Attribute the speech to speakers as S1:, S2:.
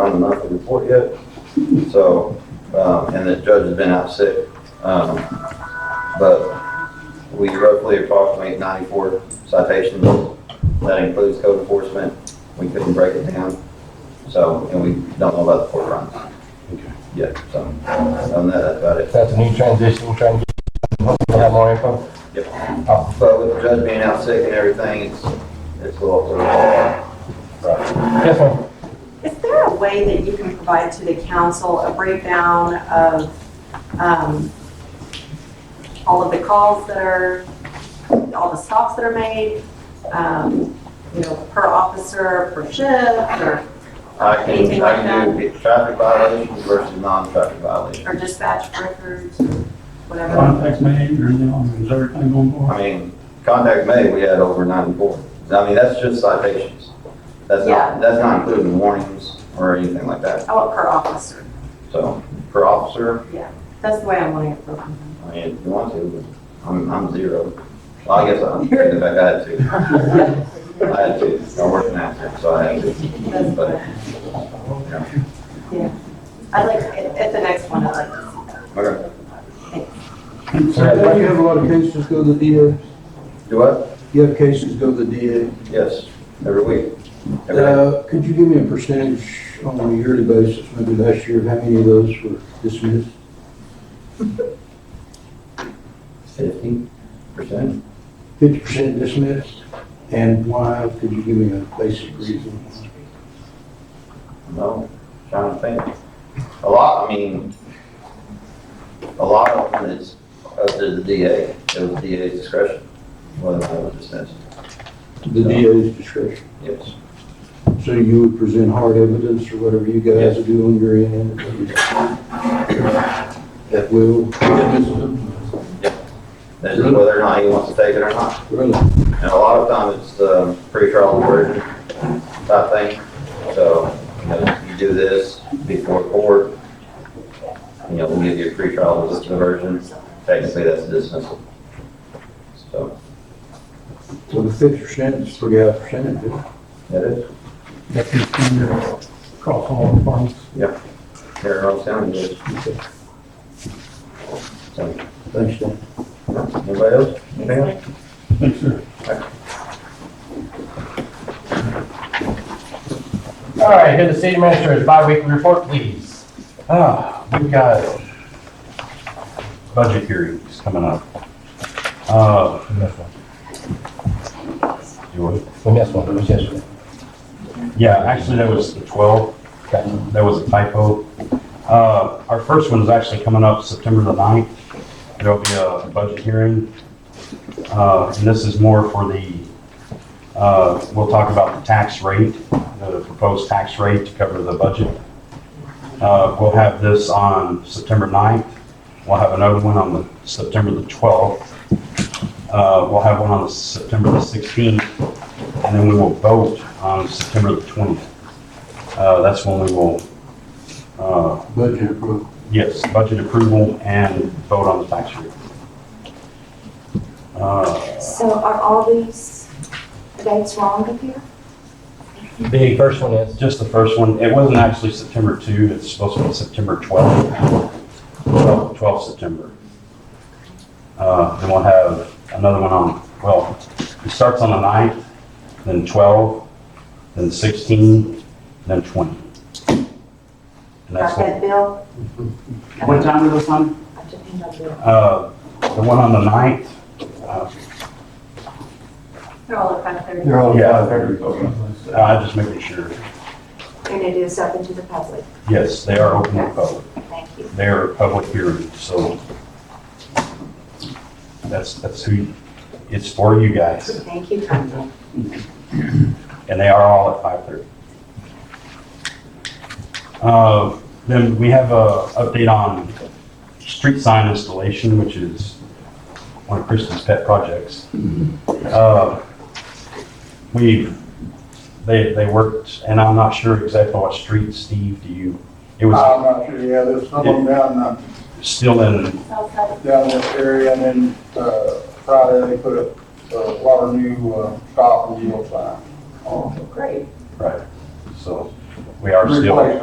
S1: on the monthly report yet. So, um, and the judge has been out sick. Um, But we roughly approximate 94 citations. That includes code enforcement. We couldn't break it down. So, and we don't know about the court runs yet, so, on that, that's about it.
S2: That's a new transition, we're trying to get, hopefully we'll have more info.
S1: Yep.
S2: Oh,
S1: But with the judge being out sick and everything, it's, it's a little, it's
S2: Yes, ma'am.
S3: Is there a way that you can provide to the council a breakdown of um, all of the calls that are, all the stops that are made, um, you know, per officer, per shift, or
S1: I can,
S3: Anything
S1: I
S3: like
S1: can do traffic violations versus non-traffic violations.
S3: or dispatch records, or whatever?
S4: Contacts made or anything, on is everything on board?
S1: I mean, contact May, we had over ninety-four. I mean, that's just citations. That's
S3: Yeah.
S1: not, that's not including warnings or anything like that.
S3: I want Oh, per officer.
S1: So, per officer,
S3: That's the way I'm wanting it broken.
S1: I mean, if you want to, but I'm, I'm zero. Well, I guess I'm, if I had to. I had to, I worked an actor, so I had to.
S3: That's what- Yeah. I'd like, at at the next one, I'd like to see that.
S1: Okay.
S2: Sir,
S5: Don't you have a lot of cases go to the DA?
S1: Do what?
S5: You have cases go to the DA.
S1: Yes, every week. Every day.
S5: Uh, Could you give me a percentage on a yearly basis, maybe last year, of how many of those were dismissed?
S1: Fifty percent.
S5: Fifty percent dismissed? And why, could you give me a basic reason?
S1: No, trying to think. A lot, I mean, a lot of them is up to the DA, it was DA's discretion, whether that was dismissed,
S5: The DA's discretion.
S1: yes.
S5: So you would present hard evidence or whatever you guys do on your end? That will,
S1: That's just whether or not he wants to take it or not.
S5: really,
S1: And a lot of times it's um, pretrial order type thing, so, you know, you do this before court, you know, we'll give you a pretrial version, technically that's dismissal. So,
S5: so the fifty percent is pretty high percentage.
S1: that is,
S4: That's the standard across all departments.
S1: here in Orange County, yes. So,
S5: Thanks, Dan.
S1: Anybody else? Anything else?
S4: Thanks, sir.
S2: All right, here the city administrator's bi-weekly report, please.
S6: Ah, we've got budget hearings coming up. Uh,
S2: We missed one.
S6: you what?
S2: We missed one, it was yesterday.
S6: Yeah, actually, that was the 12.
S2: Okay.
S6: That was a typo. Uh, Our first one is actually coming up September the 9th. There'll be a budget hearing. Uh, And this is more for the, uh, we'll talk about the tax rate, the proposed tax rate to cover the budget. Uh, We'll have this on September 9th. We'll have another one on the September the 12th. Uh, We'll have one on the September the 16th. And then we will vote on September the 20th. Uh, That's when we will, uh,
S5: Budget approved.
S6: yes, budget approval and vote on the tax rate. Uh,
S7: So are all these dates wrong up here?
S2: The first one is,
S6: Just the first one, it wasn't actually September 2, it's supposed to be September 12, 12, 12 September. Uh, Then we'll have another one on, well, it starts on the 9th, then 12, then 16, then 20. And that's
S7: Got
S6: what
S7: that, Bill?
S8: What time is this on?
S7: I took him up there.
S6: Uh, The one on the 9th, uh,
S3: They're all at five thirty.
S5: They're all
S6: Yeah.
S5: five hundred.
S6: I just making sure.
S7: And it is open to the public.
S6: Yes, they are open to the public.
S7: Thank you.
S6: They are public hearing, so that's, that's who, it's for you guys.
S7: Thank you, Tanya.
S6: And they are all at 5:30. Uh, Then we have a update on street sign installation, which is one of Kristen's pet projects.
S9: Mm-hmm.
S6: Uh, We, they, they worked, and I'm not sure exactly what street, Steve, do you? It was
S9: I'm not sure, yeah, there's some of them down, uh,
S6: still in,
S9: down this area, and then, uh, Friday, they put up uh, a lot of new, uh, stop and yield signs.
S3: Great.
S6: right, so we are still.
S9: Replace